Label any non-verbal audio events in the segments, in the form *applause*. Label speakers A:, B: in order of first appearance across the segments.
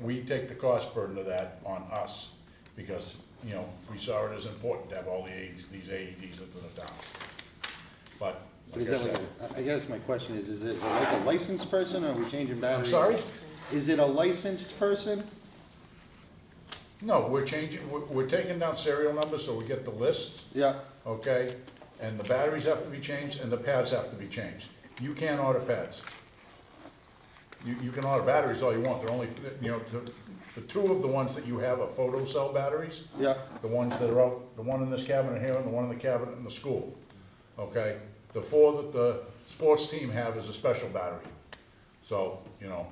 A: we take the cost burden of that on us, because, you know, we saw it as important to have all the AEDs, these E AEDs into the town. But,
B: Is
A: like I
B: that
A: said,
B: like, a- I guess my question is, is it like a licensed person, or are we changing batteries?
A: sorry?
B: Is it a licensed person?
A: no, we're changing, we're, we're taking down serial numbers, so we get the list,
B: Yeah,
A: okay? And the batteries have to be changed, and the pads have to be changed. You can't order pads. You, you can order batteries all you want, they're only, you know, the, the two of the ones that you have are photo cell batteries.
B: yeah,
A: the ones that are out, the one in this cabinet here and the one in the cabinet in the school, okay? The four that the sports team have is a special battery, so, you know.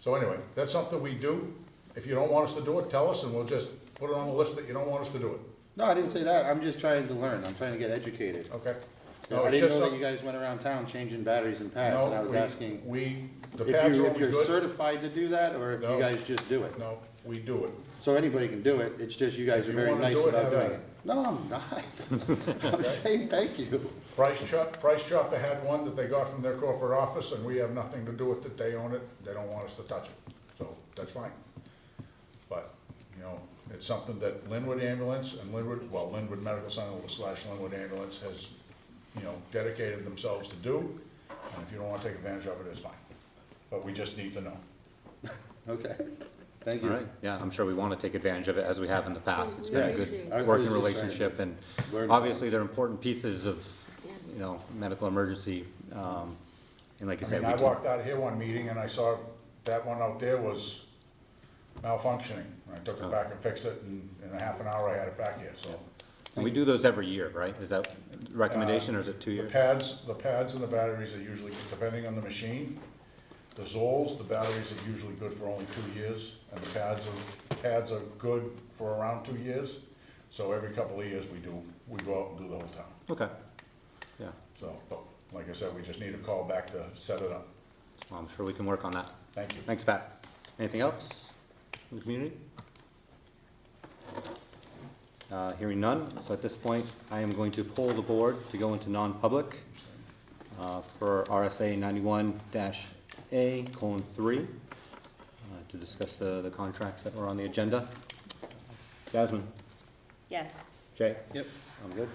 A: So anyway, that's something we do. If you don't want us to do it, tell us and we'll just put it on the list that you don't want us to do it,
B: no, I didn't say that, I'm just trying to learn, I'm trying to get educated.
A: okay? No,
B: I
A: it's
B: didn't
A: just
B: know that
A: some-
B: you guys went around town changing batteries and pads, and I
A: no,
B: was
A: we-
B: asking
A: We, the
B: if
A: pads
B: you,
A: are
B: if
A: we
B: you're
A: good.
B: certified to do that, or if you
A: No.
B: guys just do it.
A: No, we do it.
B: So anybody can do it, it's just you guys
A: If
B: are
A: you
B: very
A: wanna
B: nice
A: do it,
B: about
A: have
B: doing
A: at
B: it.
A: it.
B: No, I'm
A: *laughs*
B: not, I'm saying thank you.
A: Price Chop, Price Chopper had one that they got from their corporate office, and we have nothing to do with it, they own it, they don't want us to touch it, so that's fine. But, you know, it's something that Linwood Ambulance and Linwood, well, Linwood Medical Center slash Linwood Ambulance has, you know, dedicated themselves to do, and if you don't wanna take advantage of it, it's fine. But we just need to know.
B: Okay, thank
C: All
B: you.
C: right, yeah, I'm sure we want to take advantage of it as we have in the past. It's been a
B: Yeah, I- I
C: good
B: was
C: working
B: just trying to
C: relationship and
B: learn about
C: obviously they're important pieces of, you know, medical emergency. um, And like I
A: I
C: said,
A: mean,
C: we
A: I
C: can-
A: walked out of here one meeting and I saw that one out there was malfunctioning. I took it back and fixed it, and in a half an hour I had it back here, so.
C: and we do those every year, right? Is that recommendation or is it two
A: The
C: years?
A: pads, the pads and the batteries are usually, depending on the machine, the Zolls, the batteries are usually good for only two years, and the pads are, pads are good for around two years. So every couple of years, we do, we go out and do the whole town,
C: Okay, yeah,
A: so, but, like I said, we just need a call back to set it up.
C: Well, I'm sure we can work on that.
A: Thank you.
C: Thanks, Pat. Anything else in the community? Uh, Hearing none, so at this point, I am going to poll the board to go into non-public uh, per RSA ninety-one dash A colon three uh, to discuss the, the contracts that were on the agenda. Jasmine?
D: Yes.
C: Jay?
B: Yep.
C: I'm good?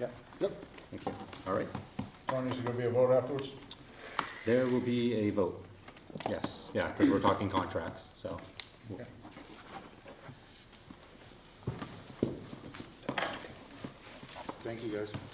C: Yep.
B: Yep.
C: Thank you. All right.
A: Tony, is there gonna be a vote afterwards?
C: There will be a vote. Yes, yeah, because we're talking contracts, so.
B: Thank you, guys.